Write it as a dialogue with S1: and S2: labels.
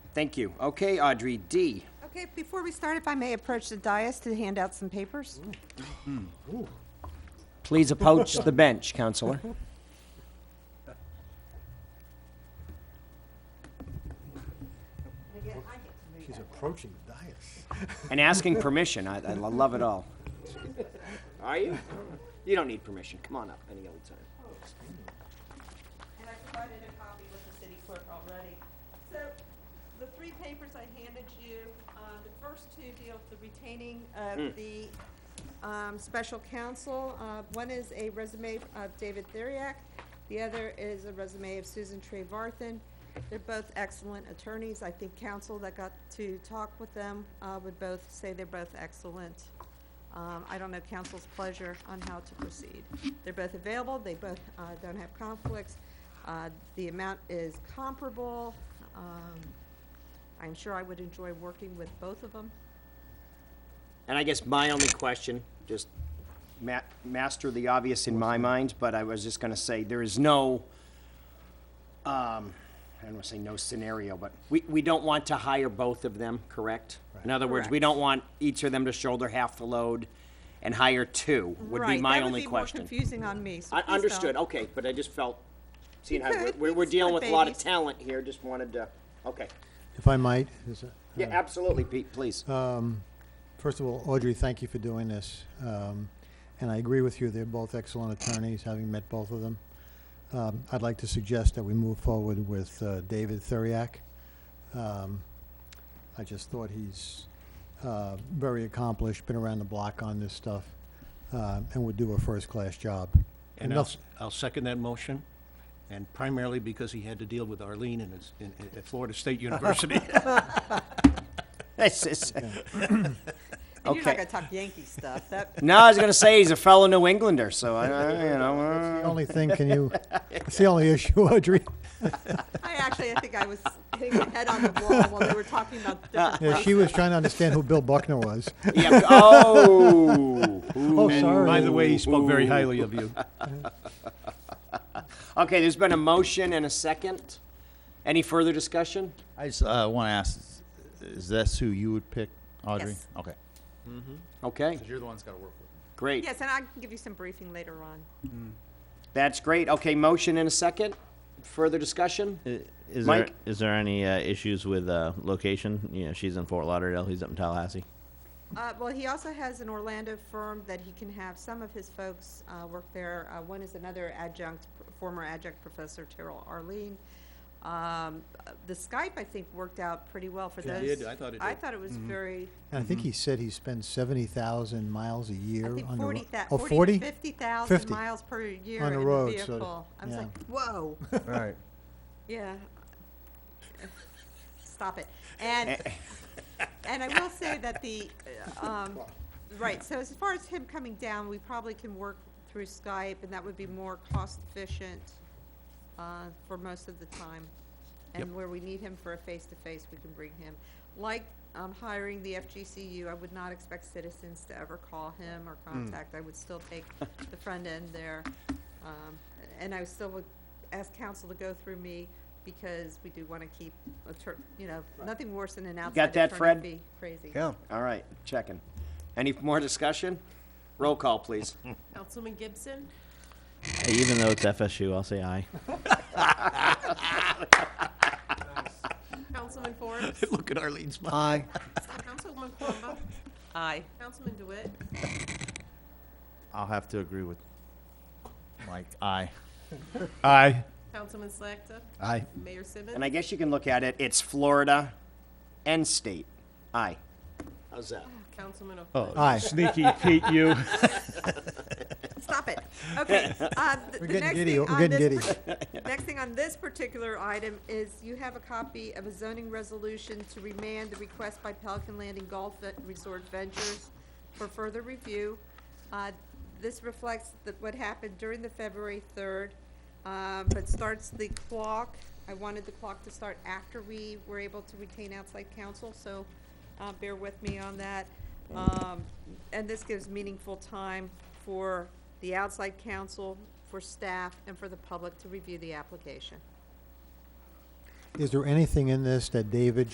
S1: Thank you. Okay, Audrey, D.
S2: Okay, before we start, if I may approach the dais to hand out some papers?
S1: Please approach the bench, Counselor.
S3: She's approaching the dais.
S1: And asking permission. I, I love it all. Are you? You don't need permission. Come on up any old time.
S2: And I provided a copy with the city clerk already. So the three papers I handed you, uh, the first two deal with the retaining of the um, special counsel. Uh, One is a resume of David Theriak, the other is a resume of Susan Trevarthen. They're both excellent attorneys. I think counsel that got to talk with them uh, would both say they're both excellent. Um, I don't know council's pleasure on how to proceed. They're both available, they both uh, don't have conflicts. Uh, The amount is comparable. Um, I'm sure I would enjoy working with both of them.
S1: And I guess my only question, just ma- master the obvious in my mind, but I was just gonna say, there is no, um, I don't wanna say no scenario, but we, we don't want to hire both of them, correct? In other words, we don't want each of them to shoulder half the load and hire two, would be
S2: Right,
S1: my only
S2: That would
S1: question.
S2: be more confusing on me, so
S1: I
S2: please don't.
S1: Understood, okay, but I just felt, seeing how,
S2: You could,
S1: we're, we're
S2: it's
S1: dealing
S2: not
S1: with a lot of
S2: babies.
S1: talent here, just wanted to, okay.
S3: If I might, is it?
S1: Yeah, absolutely, Pete, please.
S3: Uh, First of all, Audrey, thank you for doing this. Um, And I agree with you, they're both excellent attorneys, having met both of them. Um, I'd like to suggest that we move forward with uh, David Thuriak. Um, I just thought he's uh, very accomplished, been around the block on this stuff, uh, and would do a first-class job.
S4: And I'll,
S3: Enough-
S4: I'll second that motion, and primarily because he had to deal with Arlene in his, in, at Florida State University.
S1: It's- it's-
S2: And you're
S1: Okay.
S2: not gonna talk Yankee stuff, that,
S1: No, I was gonna say he's a fellow New Englander, so I, I- you know. uh,
S3: The only thing, can you, it's the only issue, Audrey.
S2: I actually, I think I was hitting my head on the wall while they were talking about different
S3: Yeah, she was trying to understand who Bill Buckner was.
S1: Yeah. Oh.
S3: Oh,
S1: Ooh.
S3: sorry.
S4: By the way, he spoke very highly of you.
S1: Okay, there's been a motion and a second. Any further discussion?
S5: I just uh, want to ask: Is this who you would pick, Audrey?
S2: Yes.
S5: Okay.
S1: Okay,
S6: Because you're the one that's got to work with
S1: great.
S2: Yes, and I can give you some briefing later on.
S1: That's great. Okay, motion and a second. Further discussion?
S7: Is
S1: Mike?
S7: there is there any uh, issues with uh, location? You know, she's in Fort Lauderdale. He's up in Tallahassee.
S2: Uh, well, he also has an Orlando firm that he can have some of his folks, uh, work there. Uh, one is another adjunct, former adjunct professor Terrell Arlene. Um, uh, the Skype, I think, worked out pretty well for
S4: It
S2: those.
S4: did. I thought it
S2: I
S4: did. Mm-hmm.
S2: thought it was very,
S3: And I think he said he spends seventy thousand miles a
S2: I
S3: year
S2: think
S3: on the
S2: forty
S3: road.
S2: thou-
S3: Oh,
S2: forty
S3: forty?
S2: to fifty thousand
S3: 50
S2: miles per year
S3: on
S2: in
S3: the
S2: the
S3: road, so-
S2: vehicle. I was
S3: yeah.
S2: like, whoa,
S4: Right.
S2: yeah. Stop it. And
S3: Eh.
S2: And I will say that the, uh, um, right, so as far as him coming down, we probably can work through Skype, and that would be more cost-efficient uh, for most of the time. And where we need him for a face-to-face, we can bring him. Like um, hiring the FGCU, I would not expect citizens to ever call him or
S1: Hmm.
S2: contact. I would still take the front end there. Um, And I still would ask council to go through me, because we do want to keep, attor- you know, nothing worse than an outside
S1: Got that,
S2: attorney
S1: Fred?
S2: fee. Crazy.
S1: All right, checking. Any more discussion? Roll call, please.
S8: Councilman Gibson,
S7: Hey, even though it's FSU, I'll say aye.
S8: Councilman Forbes,
S4: Look at Arlene's smile.
S3: Aye.
S8: Councilman Palumbo,
S2: Aye.
S8: Councilman DeWitt,
S5: I'll have to agree with Mike. Aye.
S4: Aye.
S8: Councilman Slakta,
S4: Aye.
S8: Mayor Simmons.
S1: And I guess you can look at it, it's Florida and state. Aye. How's that?
S8: Councilman
S3: Oh.
S8: O'Flynn.
S3: Aye.
S4: Sneaky Pete, you.
S2: Stop it. Okay. uh, th- the
S3: We're getting
S2: next
S3: giddy.
S2: thing
S3: We're
S2: on
S3: getting
S2: this par- Next thing on this particular item is you have a copy of a zoning resolution to remand the request by Pelican Landing Golf Ve- Resort Ventures for further review. Uh, This reflects the- what happened during the February 3rd, um, but starts the clock. I wanted the clock to start after we were able to retain outside counsel, so uh, bear with me on that. Um, And this gives meaningful time for the outside counsel, for staff, and for the public to review the application.
S3: Is there anything in this that David